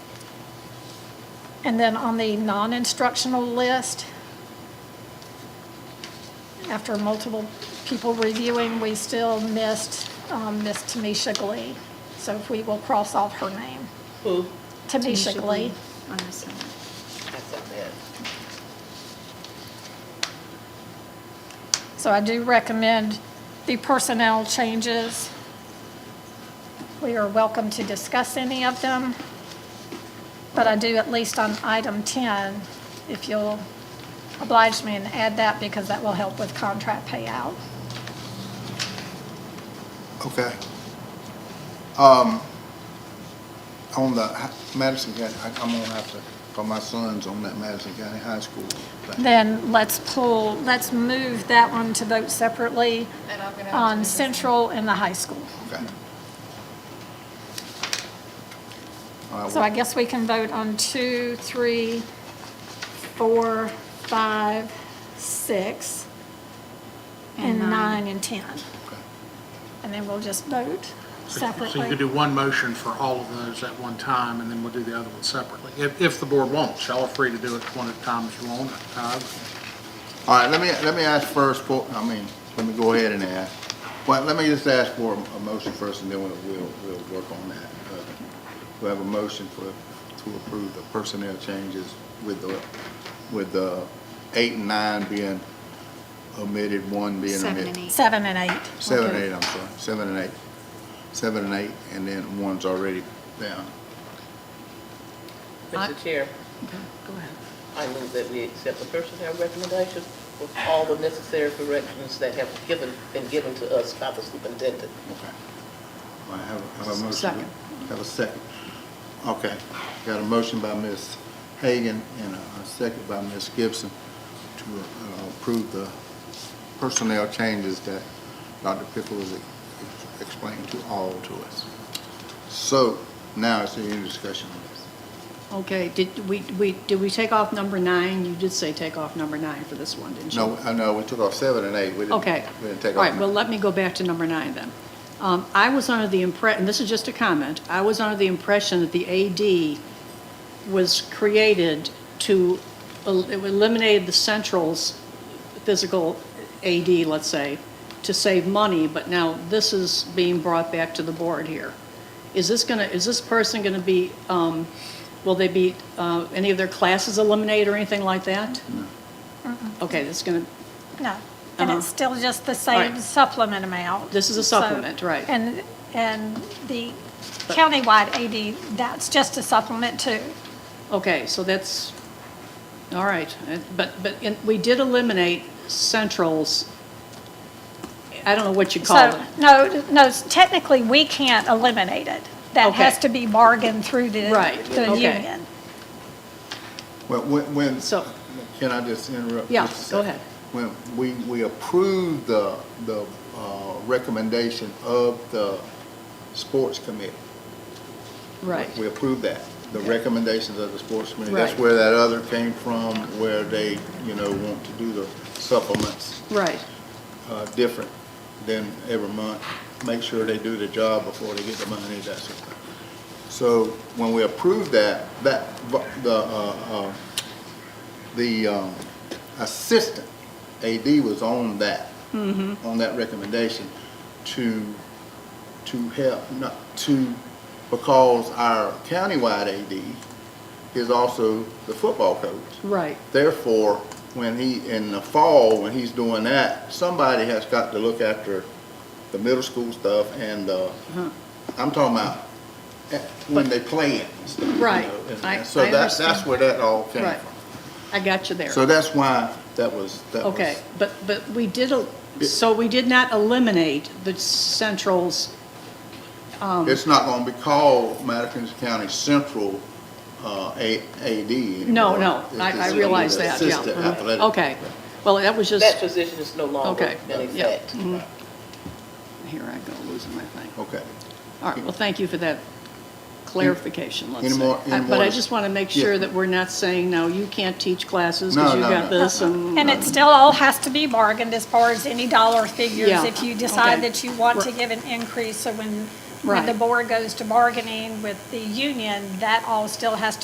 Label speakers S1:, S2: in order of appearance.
S1: And then on the non-instructional list, after multiple people reviewing, we still missed um, Miss Tamisha Glee. So if we will cross off her name.
S2: Who?
S1: Tamisha Glee.
S3: I missed that.
S2: That's not bad.
S1: So I do recommend the personnel changes. We are welcome to discuss any of them, but I do at least on item 10, if you'll oblige me and add that, because that will help with contract payout.
S4: Okay. Um, on the hi- Madison County, I, I'm gonna have to, for my sons on that Madison County High School. thing.
S1: Then let's pull, let's move that one to vote separately
S5: And I'm gonna have to
S1: on
S5: make this-
S1: Central and the high school.
S4: Okay. All right,
S1: So I guess we can vote on two, three, four, five, six, and
S3: And nine.
S1: nine and 10.
S4: okay.
S1: And then we'll just vote
S6: So you could
S1: separately.
S6: do one motion for all of those at one time, and then we'll do the other one separately. If, if the board wants, y'all are free to do it one at a time if you want. Uh,
S4: All right, let me, let me ask first for, I mean, let me go ahead and ask. Well, let me just ask for a motion first and then we'll, we'll, we'll work on that. Uh, We have a motion for, to approve the personnel changes with the, with the eight and nine being omitted, one being
S3: Seven and
S4: omitted.
S3: eight.
S1: Seven and eight.
S4: Seven and eight, I'm sorry, seven and eight. Seven and eight, and then one's already down.
S3: I-
S2: Mr. Chair,
S3: Go ahead.
S2: I move that we accept the personnel recommendations with all the necessary corrections that have given, been given to us by the superintendent.
S4: Okay. I have, have a motion.
S3: Second.
S4: Have a second. Okay. Got a motion by Ms. Hagan and a a second by Ms. Gibson to uh, approve the personnel changes that Dr. Pickle has ex- explained to all to us. So now is there any discussion on this?
S3: Okay, did we, we, did we take off number nine? You did say take off number nine for this one, didn't you?
S4: No, I know, we took off seven and eight. We didn't-
S3: Okay.
S4: We didn't take off.
S3: All right, well, let me go back to number nine then. Um, I was under the impre, and this is just a comment, I was under the impression that the AD was created to, el- it eliminated the central's physical AD, let's say, to save money, but now this is being brought back to the board here. Is this gonna, is this person gonna be, um, will they be, uh, any of their classes eliminated or anything like that? Okay, that's gonna,
S1: No. And it's still just the same
S3: Uh-huh. Right.
S1: supplement amount.
S3: This is a
S1: So-
S3: supplement, right.
S1: And, and the countywide AD, that's just a supplement too.
S3: Okay, so that's, all right, Uh, but, but in- we did eliminate Central's, I don't know what you call
S1: So,
S3: it.
S1: no, no, technically, we can't eliminate it. That
S3: Okay.
S1: has to be bargained through the,
S3: Right,
S1: the
S3: okay.
S1: union.
S4: Well, when, when,
S3: So-
S4: can I just interrupt?
S3: Yeah,
S4: just a
S3: go
S4: second?
S3: ahead.
S4: When we, we approved the, the uh, recommendation of the sports committee.
S3: Right,
S4: We approved that, the recommendations of the sports committee. That's
S3: Right.
S4: where that other came from, where they, you know, want to do the supplements
S3: right,
S4: uh, different than every month, make sure they do the job before they get the money, that sort of thing. So when we approved that, that, the, uh, uh, the um, assistant AD was on that, on that recommendation to, to help, not, to, because our countywide AD is also the football coach.
S3: right,
S4: Therefore, when he, in the fall, when he's doing that, somebody has got to look after the middle school stuff and, uh,
S3: Uh-huh.
S4: I'm talking about eh, when they play it. and stuff, you
S3: Right.
S4: know, and-
S3: I-
S4: and So
S3: I
S4: that's, that's
S3: understand.
S4: where that all came
S3: right.
S4: from.
S3: I got you there.
S4: So that's why that was, that was.
S3: Okay, but, but we did, el- so we did not eliminate the Central's, um.
S4: It's not gonna be called Madison County Central, uh, A, AD
S3: no,
S4: anymore.
S3: no,
S4: It's-
S3: I, I
S4: it's
S3: realize
S4: gonna be
S3: that,
S4: the
S3: yeah.
S4: assistant
S3: mhm.
S4: athletic
S3: Okay, well, that was
S2: That
S3: just,
S2: position is no longer
S3: Okay,
S2: in
S3: yeah.
S2: effect.
S3: Mm-hmm. here I go, losing my thing.
S4: Okay.
S3: All right, well, thank you for that clarification, let's
S4: Any
S3: say.
S4: more- any
S3: I- But
S4: more
S3: I
S4: dis-
S3: just want to make
S4: Yeah.
S3: sure that we're not saying, no, you can't teach classes
S4: No,
S3: because you
S4: no,
S3: got
S4: no.
S3: this and.
S1: And it still all has to be bargained as far as any dollar figures.
S3: Yeah,
S1: If you decide
S3: okay.
S1: that you want to
S3: Right.
S1: give an increase, so when, when the
S3: Right.
S1: board goes to bargaining with the union, that all still has to